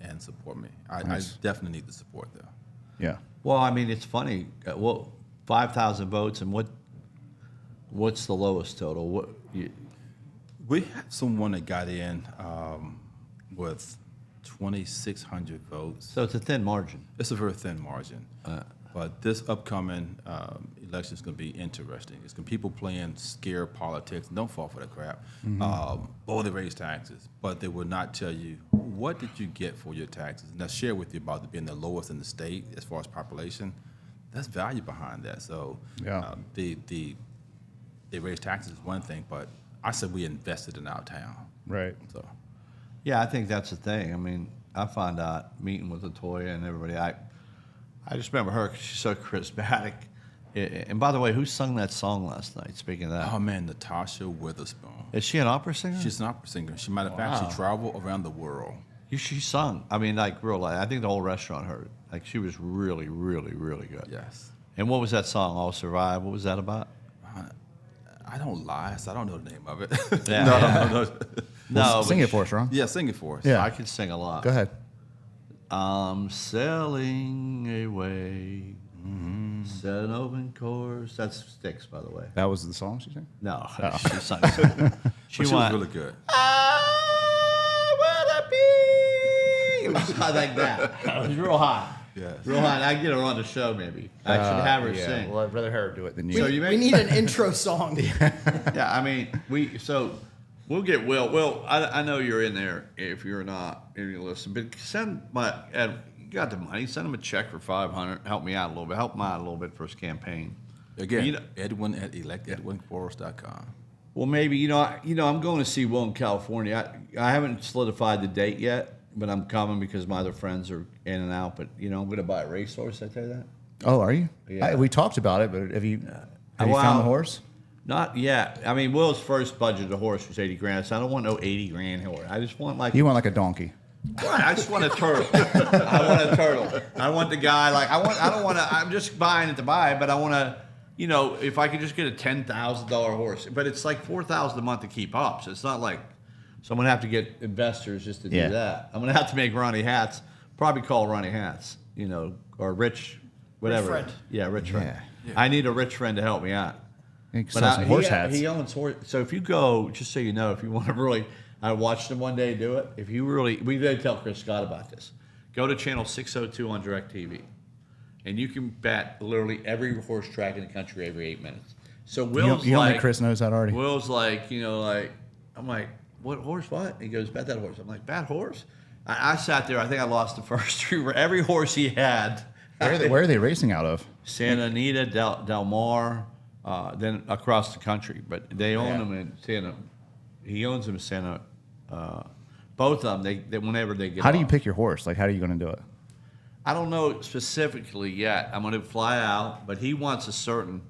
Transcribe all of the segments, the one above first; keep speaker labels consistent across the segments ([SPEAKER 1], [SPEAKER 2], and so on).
[SPEAKER 1] and support me. I,
[SPEAKER 2] Nice.
[SPEAKER 1] I definitely need the support there.
[SPEAKER 2] Yeah.
[SPEAKER 3] Well, I mean, it's funny. Uh, Well, five thousand votes, and what? What's the lowest total? What? You,
[SPEAKER 1] We had someone that got in um, with 2,600 votes.
[SPEAKER 3] so it's a thin margin.
[SPEAKER 1] It's a very thin margin. but this upcoming um, election is going to be interesting. It's going to people playing scare politics. Don't fall for that crap. Um, oh, they raise taxes, but they will not tell you what did you get for your taxes. And I share with you about it being the lowest in the state as far as population. That's value behind that. So
[SPEAKER 2] Yeah.
[SPEAKER 1] um, the the they raise taxes is one thing, but I said we invested in our town.
[SPEAKER 2] Right.
[SPEAKER 1] So
[SPEAKER 3] Yeah, I think that's the thing. I mean, I found out meeting with Latoya and everybody. I, I just remember her 'cause she's so charismatic. A- a- And by the way, who sung that song last night? Speaking of that,
[SPEAKER 1] oh man, Natasha Witherspoon.
[SPEAKER 3] is she an opera singer?
[SPEAKER 1] She's an opera singer. She might have actually traveled around the world.
[SPEAKER 3] You- she sung. I mean, like real. I think the whole restaurant heard. Like she was really, really, really good.
[SPEAKER 1] Yes.
[SPEAKER 3] And what was that song? All survive. What was that about?
[SPEAKER 1] I don't lie, so I don't know the name of it.
[SPEAKER 3] Yeah.
[SPEAKER 1] no, no, no, no.
[SPEAKER 3] No,
[SPEAKER 2] Sing
[SPEAKER 3] but
[SPEAKER 2] it for us, Ron.
[SPEAKER 1] Yeah, sing it for us.
[SPEAKER 2] Yeah.
[SPEAKER 3] I can sing a lot.
[SPEAKER 2] Go ahead.
[SPEAKER 3] I'm sailing away.
[SPEAKER 1] Mm-hmm.
[SPEAKER 3] Set an open course. That's Sticks, by the way.
[SPEAKER 2] That was the song she sang.
[SPEAKER 3] No, she's not. singing.
[SPEAKER 1] But
[SPEAKER 3] She,
[SPEAKER 1] Oh. she was
[SPEAKER 3] went,
[SPEAKER 1] really good.
[SPEAKER 3] I wanna be. It was high like that. It was real high.
[SPEAKER 1] Yes.
[SPEAKER 3] Real high. I can get her on the show, maybe. I should have her sing.
[SPEAKER 2] I'd rather her do it than
[SPEAKER 3] so you
[SPEAKER 4] We
[SPEAKER 3] may,
[SPEAKER 4] need an intro song.
[SPEAKER 3] yeah, I mean, we so we'll get Will. Will, I, I know you're in there. If you're not, if you listen, but send my Ed, you got the money. Send him a check for five hundred. Help me out a little bit. Help mine a little bit for his campaign.
[SPEAKER 1] Again,
[SPEAKER 3] You know-
[SPEAKER 1] Edwin at electedwinquarles.com.
[SPEAKER 3] Well, maybe you know, I, you know, I'm going to see Will in California. I, I haven't solidified the date yet, but I'm coming because my other friends are in and out. But you know, I'm going to buy a racehorse. I tell you that.
[SPEAKER 2] oh, are you?
[SPEAKER 3] Yeah.
[SPEAKER 2] I- we talked about it, but have you have you
[SPEAKER 3] Well-
[SPEAKER 2] found the horse?
[SPEAKER 3] Not yet. I mean, Will's first budget of horse was 80 grand, so I don't want no 80 grand horse. I just want like
[SPEAKER 2] You want like a donkey?
[SPEAKER 3] Right, I just want a turtle. I want a turtle. I want the guy like I want. I don't want to. I'm just buying it to buy, but I want to. You know, if I could just get a ten thousand dollar horse, but it's like four thousand a month to keep up. So it's not like. So I'm gonna have to get investors just to do
[SPEAKER 2] Yeah.
[SPEAKER 3] that. I'm gonna have to make Ronnie Hats. Probably call Ronnie Hats. You know, or Rich, whatever.
[SPEAKER 4] friend.
[SPEAKER 3] Yeah, Rich friend.
[SPEAKER 1] Yeah.
[SPEAKER 3] I need a rich friend to help me out.
[SPEAKER 2] You can
[SPEAKER 3] But
[SPEAKER 2] sell
[SPEAKER 3] I-
[SPEAKER 2] some
[SPEAKER 3] he-
[SPEAKER 2] horse
[SPEAKER 3] he,
[SPEAKER 2] hats.
[SPEAKER 3] owns horse. So if you go, just so you know, if you want to really, I watched him one day do it. If you really, we did tell Chris Scott about this. Go to channel 602 on DirecTV, and you can bet literally every horse track in the country every eight minutes. So Will's
[SPEAKER 2] you don't
[SPEAKER 3] like,
[SPEAKER 2] think Chris knows that already?
[SPEAKER 3] Will's like, you know, like I'm like, what horse? What? He goes, bet that horse. I'm like, bad horse. I, I sat there. I think I lost the first three. Every horse he had.
[SPEAKER 2] where, are they, where are they racing out of?
[SPEAKER 3] Santa Anita, Del, Del Mar, uh, then across the country. But they own
[SPEAKER 2] Yeah.
[SPEAKER 3] them in Santa. He owns them in Santa. Uh, both of them. They, they whenever they get.
[SPEAKER 2] How do you
[SPEAKER 3] off.
[SPEAKER 2] pick your horse? Like, how are you going to do it?
[SPEAKER 3] I don't know specifically yet. I'm going to fly out, but he wants a certain,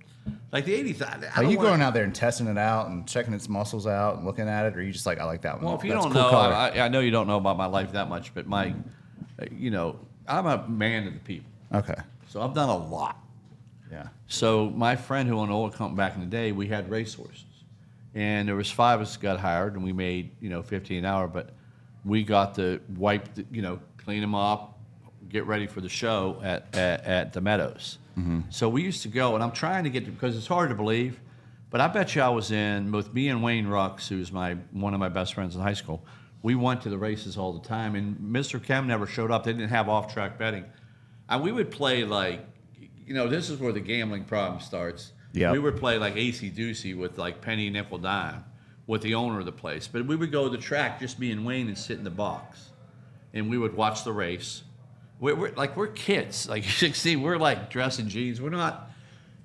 [SPEAKER 3] like the eighty thousand.
[SPEAKER 2] Are you going out there and testing it out and checking its muscles out and looking at it, or are you just like, I like that one?
[SPEAKER 3] Well, if you
[SPEAKER 2] That's
[SPEAKER 3] don't
[SPEAKER 2] cool
[SPEAKER 3] know,
[SPEAKER 2] color.
[SPEAKER 3] I, I- I know you don't know about my life that much, but my, uh, you know, I'm a man of the people,
[SPEAKER 2] okay,
[SPEAKER 3] so I've done a lot.
[SPEAKER 2] yeah,
[SPEAKER 3] So my friend who owned an oil company back in the day, we had racehorses, and there was five of us got hired, and we made you know fifteen an hour, but we got to wipe, the, you know, clean them up, get ready for the show at at, at the Meadows. So we used to go, and I'm trying to get to, because it's hard to believe, but I bet you I was in with me and Wayne Rux, who's my one of my best friends in high school. We went to the races all the time, and Mr. Kem never showed up. They didn't have off track betting, and we would play like you know, this is where the gambling problem starts.
[SPEAKER 2] Yeah.
[SPEAKER 3] We would play like AC Ducey with like penny, nickel, dime with the owner of the place. But we would go to the track, just me and Wayne, and sit in the box. And we would watch the race. We're, we're like, we're kids, like 16. We're like dressed in jeans. We're not,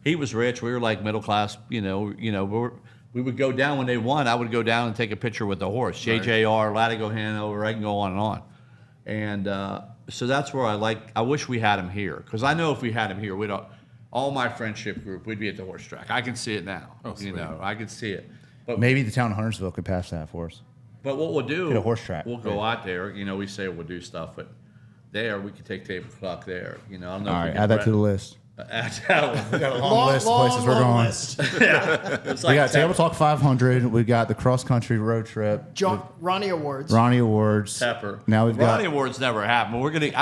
[SPEAKER 3] he was rich. We were like middle class, you know, you know, we're, we would go down when they won. I would go down and take a picture with the horse. JJR, Latigo Hanover, I can go on and on. And uh, so that's where I like, I wish we had him here because I know if we had him here, we'd all, all my friendship group, we'd be at the horse track. I can see it now.
[SPEAKER 1] Oh,
[SPEAKER 3] you
[SPEAKER 1] sweet.
[SPEAKER 3] know, I can see it. But
[SPEAKER 2] maybe the town of Huntersville could pass that for us.
[SPEAKER 3] but what we'll do,
[SPEAKER 2] Get a horse track.
[SPEAKER 3] We'll go out there. You know, we say we'll do stuff, but there we could take table clock there. You know, I don't know.
[SPEAKER 2] All
[SPEAKER 3] if we
[SPEAKER 2] right,
[SPEAKER 3] can
[SPEAKER 2] add that
[SPEAKER 3] bre-
[SPEAKER 2] to the list. We got a long, list of
[SPEAKER 4] long,
[SPEAKER 2] places we're
[SPEAKER 4] long
[SPEAKER 2] going.
[SPEAKER 4] list.
[SPEAKER 3] It's
[SPEAKER 2] We
[SPEAKER 3] like
[SPEAKER 2] got Table Talk 500. We got the cross country road trip.
[SPEAKER 4] John Ronnie Awards.
[SPEAKER 2] Ronnie Awards.
[SPEAKER 3] Pepper.
[SPEAKER 2] Now we've got
[SPEAKER 3] Ronnie Awards never happened. We're gonna. I